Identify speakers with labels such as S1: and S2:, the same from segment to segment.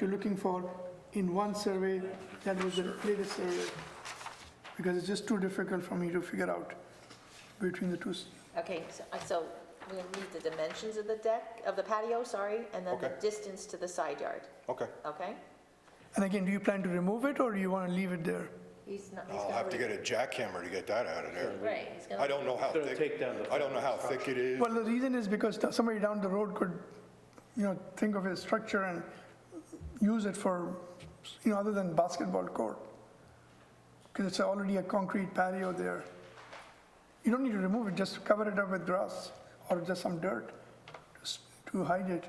S1: you're looking for in one survey, that was the latest survey, because it's just too difficult for me to figure out between the two. s-
S2: Okay, so- uh, so we'll need the dimensions of the deck, of the patio, sorry, and then the
S3: Okay.
S2: distance to the side yard,
S3: Okay.
S2: okay?
S1: And again, do you plan to remove it, or do you want to leave it there?
S2: He's not, he's
S3: I'll
S2: gonna
S3: have to
S2: leave-
S3: get a jackhammer to get that out of there.
S2: Right, he's gonna.
S3: I don't know how
S4: Gonna
S3: thick,
S4: take down the
S3: I don't know how thick it is.
S1: Well, the reason is because t- somebody down the road could, you know, think of a structure and use it for, you know, other than basketball court. Because it's already a concrete patio there. You don't need to remove it, just cover it up with grass or just some dirt to s- to hide it.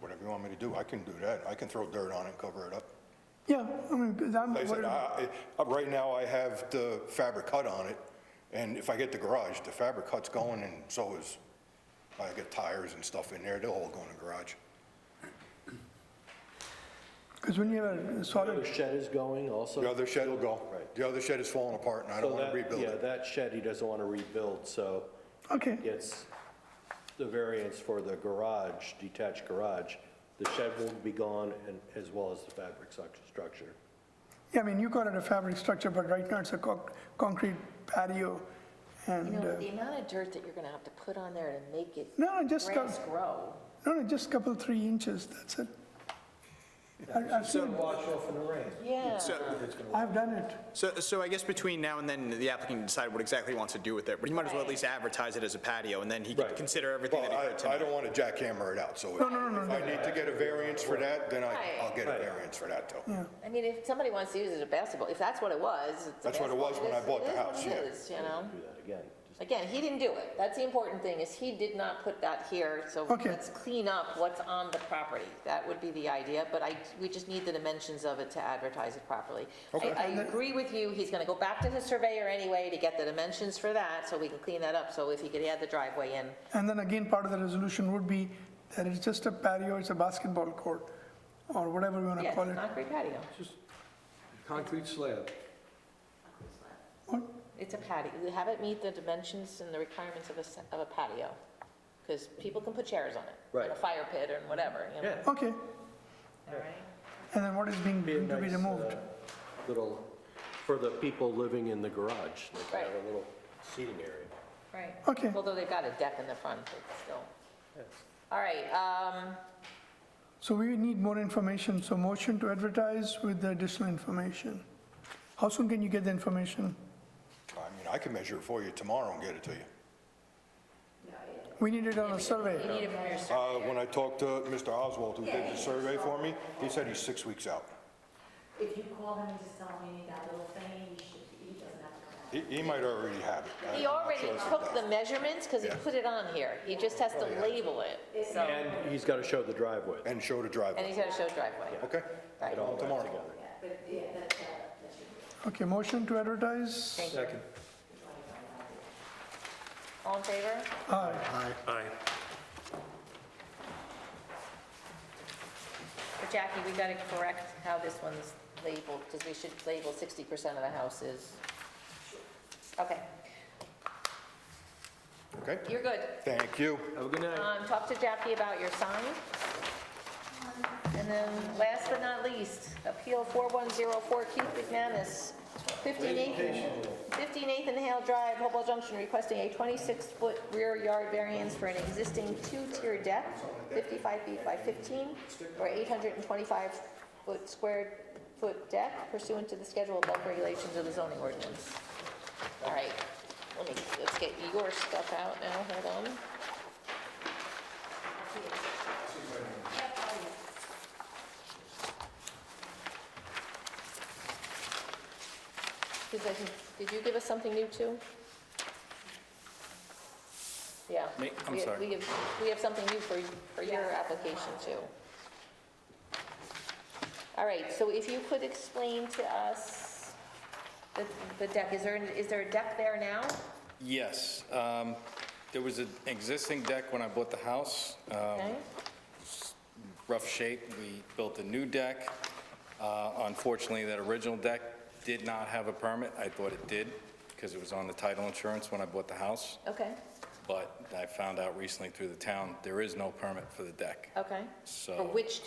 S3: Whatever you want me to do, I can do that. I can throw dirt on it, cover it up.
S1: Yeah, I mean, 'cause I'm
S3: Like I said,
S1: worried,
S4: "Ah."
S3: I, I- uh, right now I have the fabric cut on it, and if I get the garage, the fabric cut's going and so is, I get tires and stuff in there, they'll all go in the garage.
S1: because when you have a
S4: The
S1: solid,
S4: shed is going also.
S3: The other shed will go.
S4: Right.
S3: The other shed is falling apart and I
S4: So
S3: don't want
S4: that-
S3: to rebuild
S4: Yeah,
S3: it.
S4: that shed he doesn't want to rebuild, so
S1: okay,
S4: it's the variance for the garage, detached garage. The shed will be gone and as well as the fabric suc- structure.
S1: yeah, I mean, you call it a fabric structure, but right now it's a conc- concrete patio
S2: You
S1: and,
S2: know,
S1: uh,
S2: the amount of dirt that you're gonna have to put on there to make it
S1: no, no, just.
S2: grass
S1: co-
S2: grow.
S1: No, no, just a couple, three inches, that's it. I- I've seen, it.
S4: off in the rain.
S2: Yeah.
S5: So,
S1: I've done it.
S5: so, so I guess between now and then, the applicant can decide what exactly he wants to do with it, but he might as well at least advertise it as a patio, and then he can
S4: Right.
S5: consider everything
S3: Well,
S5: that he heard
S3: I, I
S5: tonight.
S3: don't want to jackhammer it out, so if
S1: No, no, no, no,
S3: I need to get a variance for that, then I,
S2: Right.
S3: I'll get a variance for that too.
S2: I mean, if somebody wants to use it as a basketball, if that's what it was, it's a
S3: That's what it was
S2: basketball,
S3: when I
S2: is-
S3: bought the
S2: is what
S3: house,
S2: it
S3: yeah.
S2: is, you know?
S4: Do that again. Just-
S2: Again, he didn't do it. That's the important thing, is he did not put that here, so
S1: Okay.
S2: let's clean up what's on the property. That would be the idea, but I, we just need the dimensions of it to advertise it properly. I, I agree with you, he's gonna go back to his surveyor anyway to get the dimensions for that, so we can clean that up, so if he could add the driveway in.
S1: And then again, part of the resolution would be that it's just a patio, it's a basketball court, or whatever you want to
S2: Yeah,
S1: call it.
S2: concrete patio.
S6: Concrete slab.
S2: It's a patio. You Have it meet the dimensions and the requirements of a, s- of a patio, because people can put chairs on it. and A
S4: Right.
S2: fire pit and whatever, you know?
S4: Yeah.
S1: Okay,
S2: All right.
S1: and then what is being,
S4: Be a
S1: to be
S4: nice,
S1: removed?
S4: uh, Little, for the people living in the garage, like have
S2: Right.
S4: a little seating area.
S2: Right.
S1: Okay.
S2: Although they've got a deck in the front, but still. All right, um,
S1: So we need more information, so motion to advertise with the additional information. How soon can you get the information?
S3: I mean, I can measure it for you tomorrow and get it to you.
S1: We need it on a survey.
S2: you need it from your sur-
S3: Uh, when I talked to Mr. Oswald, who did the survey for me, he said he's six weeks out.
S7: If you call him and just tell him you need that little thing, he should, he doesn't have to come out.
S3: He, he might already have it. I'm
S2: He
S3: not
S2: already
S3: sure if he
S2: took
S3: does.
S2: the measurements, because he
S3: Yeah.
S2: put it on here. He just has to label it, so,
S4: And he's got to show the driveway.
S3: And show the
S2: and
S3: driveway,
S2: he's got to show driveway.
S3: okay?
S2: Right.
S3: Tomorrow.
S1: Okay, motion to advertise?
S2: Thank you. All in favor?
S1: Aye.
S2: But Jackie, we got to correct how this one's labeled, because we should label 60% of the houses. Okay,
S3: Okay,
S2: you're good.
S3: thank you.
S6: Have a good night.
S2: Um, Talk to Jackie about your sign. And then, last but not least, Appeal 4104 Keith McManus, 15 Nathan, 15 Nathan Hale Drive, Hopewell Junction, requesting a 26-foot rear yard variance for an existing two-tier deck, 55 feet by 15, or 825-foot square foot deck pursuant to the schedule of bulk regulations of the zoning ordinance. All right, let me, let's get your stuff out now, hold on. Because I think, did you give us something new too? Yeah.
S5: Me? I'm
S2: We-
S5: sorry.
S2: We have, we have something new for, for your application too. All right, so if you could explain to us the, the deck, is there, is there a deck there now?
S8: Yes. um, There was an existing deck when I bought the house, um,
S2: Okay,
S8: rough shape. We built a new deck. Uh, Unfortunately, that original deck did not have a permit. I thought it did because it was on the title insurance when I bought the house.
S2: okay,
S8: but I found out recently through the town, there is no permit for the deck.
S2: Okay.
S8: So-
S2: For which